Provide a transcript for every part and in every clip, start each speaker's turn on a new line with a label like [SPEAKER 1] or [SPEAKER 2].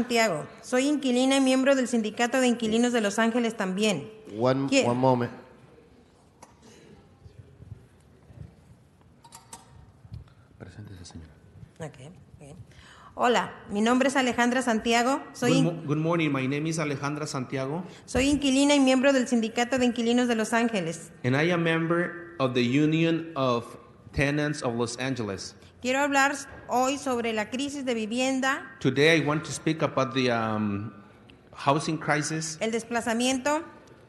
[SPEAKER 1] Santiago, soy inquilina y miembro del Sindicato de Inquilinos de Los Ángeles también.
[SPEAKER 2] One,
[SPEAKER 1] Yeah.
[SPEAKER 2] one moment.
[SPEAKER 1] Ok, bien. Hola, mi nombre es Alejandra Santiago, soy,
[SPEAKER 3] Good,
[SPEAKER 1] in-
[SPEAKER 3] mo- good morning. My name is Alejandra Santiago,
[SPEAKER 1] soy inquilina y miembro del Sindicato de Inquilinos de Los Ángeles.
[SPEAKER 3] and I am member of the Union of Tenants of Los Angeles.
[SPEAKER 1] Quiero hablar hoy sobre la crisis de vivienda,
[SPEAKER 3] Today, I want to speak about the um, housing crisis,
[SPEAKER 1] el desplazamiento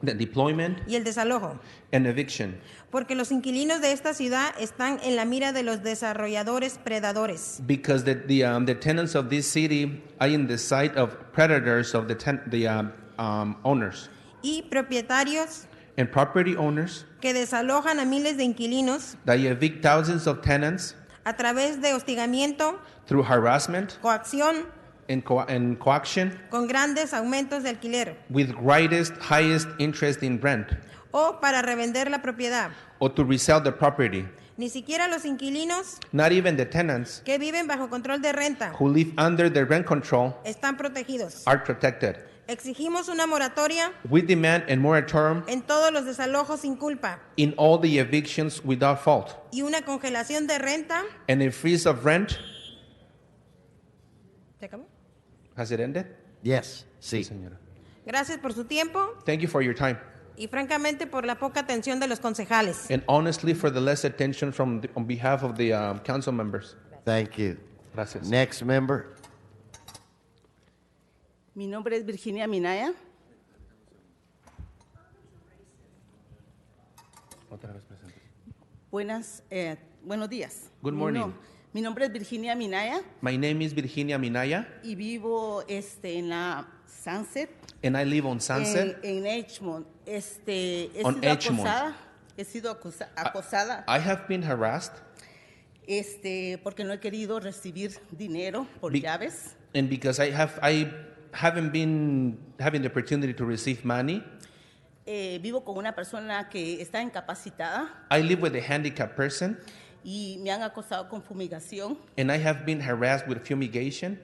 [SPEAKER 3] the deployment,
[SPEAKER 1] y el desalojo,
[SPEAKER 3] and eviction,
[SPEAKER 1] porque los inquilinos de esta ciudad están en la mira de los desarrolladores predadores.
[SPEAKER 3] because the the, um, the tenants of this city are in the sight of predators of the ten- the um, um, owners
[SPEAKER 1] y propietarios
[SPEAKER 3] and property owners.
[SPEAKER 1] que desalojan a miles de inquilinos
[SPEAKER 3] They evict thousands of tenants
[SPEAKER 1] a través de hostigamiento,
[SPEAKER 3] through harassment
[SPEAKER 1] coacción,
[SPEAKER 3] and, co- and coaction,
[SPEAKER 1] con grandes aumentos de alquiler
[SPEAKER 3] with greatest highest interest in rent.
[SPEAKER 1] o para revender la propiedad.
[SPEAKER 3] or to resell the property.
[SPEAKER 1] Ni siquiera los inquilinos
[SPEAKER 3] Not even the tenants
[SPEAKER 1] que viven bajo control de renta
[SPEAKER 3] who live under the rent control
[SPEAKER 1] están protegidos.
[SPEAKER 3] are protected.
[SPEAKER 1] Exigimos una moratoria
[SPEAKER 3] We demand a moratorium
[SPEAKER 1] en todos los desalojos sin culpa
[SPEAKER 3] in all the evictions without fault
[SPEAKER 1] y una congelación de renta.
[SPEAKER 3] and a freeze of rent.
[SPEAKER 1] ¿Se acabó?
[SPEAKER 3] Has it ended?
[SPEAKER 2] Yes, sí.
[SPEAKER 3] Señora.
[SPEAKER 1] Gracias por su tiempo
[SPEAKER 3] Thank you for your time
[SPEAKER 1] y francamente por la poca atención de los concejales.
[SPEAKER 3] and honestly for the less attention from the, on behalf of the um, council members.
[SPEAKER 2] Thank you.
[SPEAKER 3] Gracias.
[SPEAKER 2] Next member.
[SPEAKER 4] Mi nombre es Virginia Minaya. Buenas, eh, buenos días.
[SPEAKER 3] Good
[SPEAKER 4] Mi
[SPEAKER 3] morning.
[SPEAKER 4] mi nombre es Virginia Minaya
[SPEAKER 3] My name is Virginia Minaya
[SPEAKER 4] y vivo este, en la Sunset,
[SPEAKER 3] and I live on Sunset.
[SPEAKER 4] En, en Edgemont. Este, he
[SPEAKER 3] On
[SPEAKER 4] sido
[SPEAKER 3] Edgemont. Ah,
[SPEAKER 4] acosada. He sido acosa- acosada
[SPEAKER 3] I have been harassed
[SPEAKER 4] este, porque no he querido recibir dinero por
[SPEAKER 3] Be-
[SPEAKER 4] llaves.
[SPEAKER 3] and because I have I haven't been having the opportunity to receive money.
[SPEAKER 4] Eh, vivo con una persona que está incapacitada
[SPEAKER 3] I live with a handicapped person
[SPEAKER 4] y me han acosado con fumigación.
[SPEAKER 3] and I have been harassed with fumigation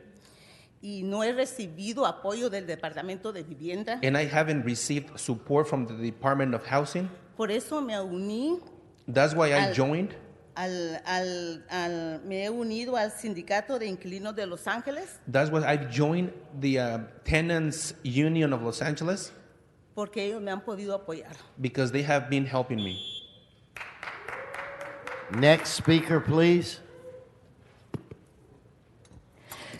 [SPEAKER 4] y no he recibido apoyo del Departamento de Vivienda.
[SPEAKER 3] and I haven't received support from the Department of Housing.
[SPEAKER 4] Por eso me uní
[SPEAKER 3] That's why I
[SPEAKER 4] Al-
[SPEAKER 3] joined.
[SPEAKER 4] al, al- al- me he unido al Sindicato de Inquilinos de Los Ángeles
[SPEAKER 3] That's why I've joined the uh, Tenants Union of Los Angeles
[SPEAKER 4] porque ellos me han podido apoyar.
[SPEAKER 3] because they have been helping me.
[SPEAKER 2] Next speaker, please.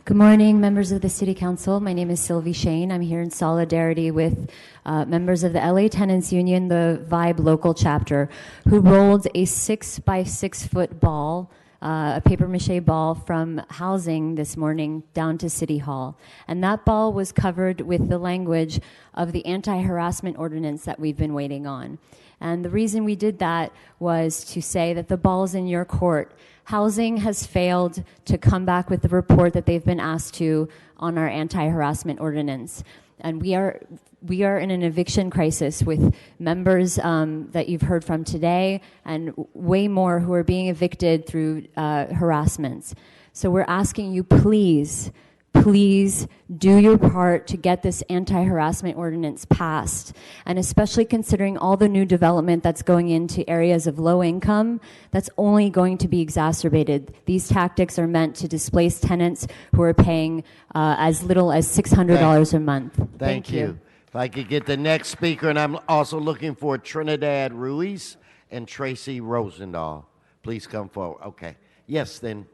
[SPEAKER 5] Good morning, members of the City Council. My name is Sylvie Shane. I'm here in solidarity with uh, members of the LA Tenants Union, the Vibe local chapter, who rolled a six by six foot ball, uh, a paper mache ball, from housing this morning down to City Hall. And that ball was covered with the language of the anti harassment ordinance that we've been waiting on. And the reason we did that was to say that the ball's in your court. Housing has failed to come back with the report that they've been asked to on our anti-harassment ordinance. And we are, we are in an eviction crisis with members um, that you've heard from today and way more who are being evicted through uh, harassments. So we're asking you, please, please do your part to get this anti-harassment ordinance passed and especially considering all the new development that's going into areas of low income that's only going to be exacerbated these tactics are meant to displace tenants who are paying uh, as little as $600 a month thank,
[SPEAKER 2] Thank you. If I could get the next speaker, and I'm also looking for Trinidad Ruiz and Tracy Rosendahl. Please come forward. Okay. Yes, then.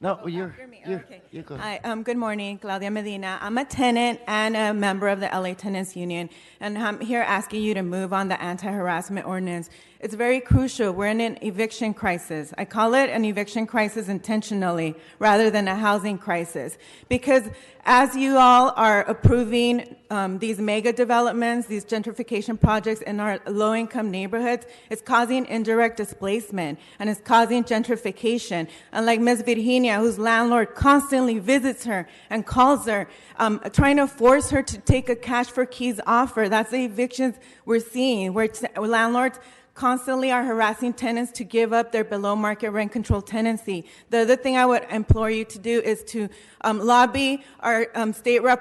[SPEAKER 2] No, you're,
[SPEAKER 6] You're me.
[SPEAKER 2] you're,
[SPEAKER 6] okay.
[SPEAKER 2] you're good.
[SPEAKER 6] Hi, um, good morning, Claudia Medina. I'm a tenant and a member of the LA Tenants Union, and I'm here asking you to move on the anti-harassment ordinance. It's very crucial. We're in an eviction crisis. I call it an eviction crisis intentionally, rather than a housing crisis, because as you all are approving um, these mega developments, these gentrification projects in our low-income neighborhoods, it's causing indirect displacement and it's causing gentrification. And like Ms. Virginia, whose landlord constantly visits her and calls her, um, trying to force her to take a cash for keys offer. That's the evictions we're seeing, where t- landlords constantly are harassing tenants to give up their below market rent control tenancy. The other thing I would implore you to do is to um, lobby our um, state rep.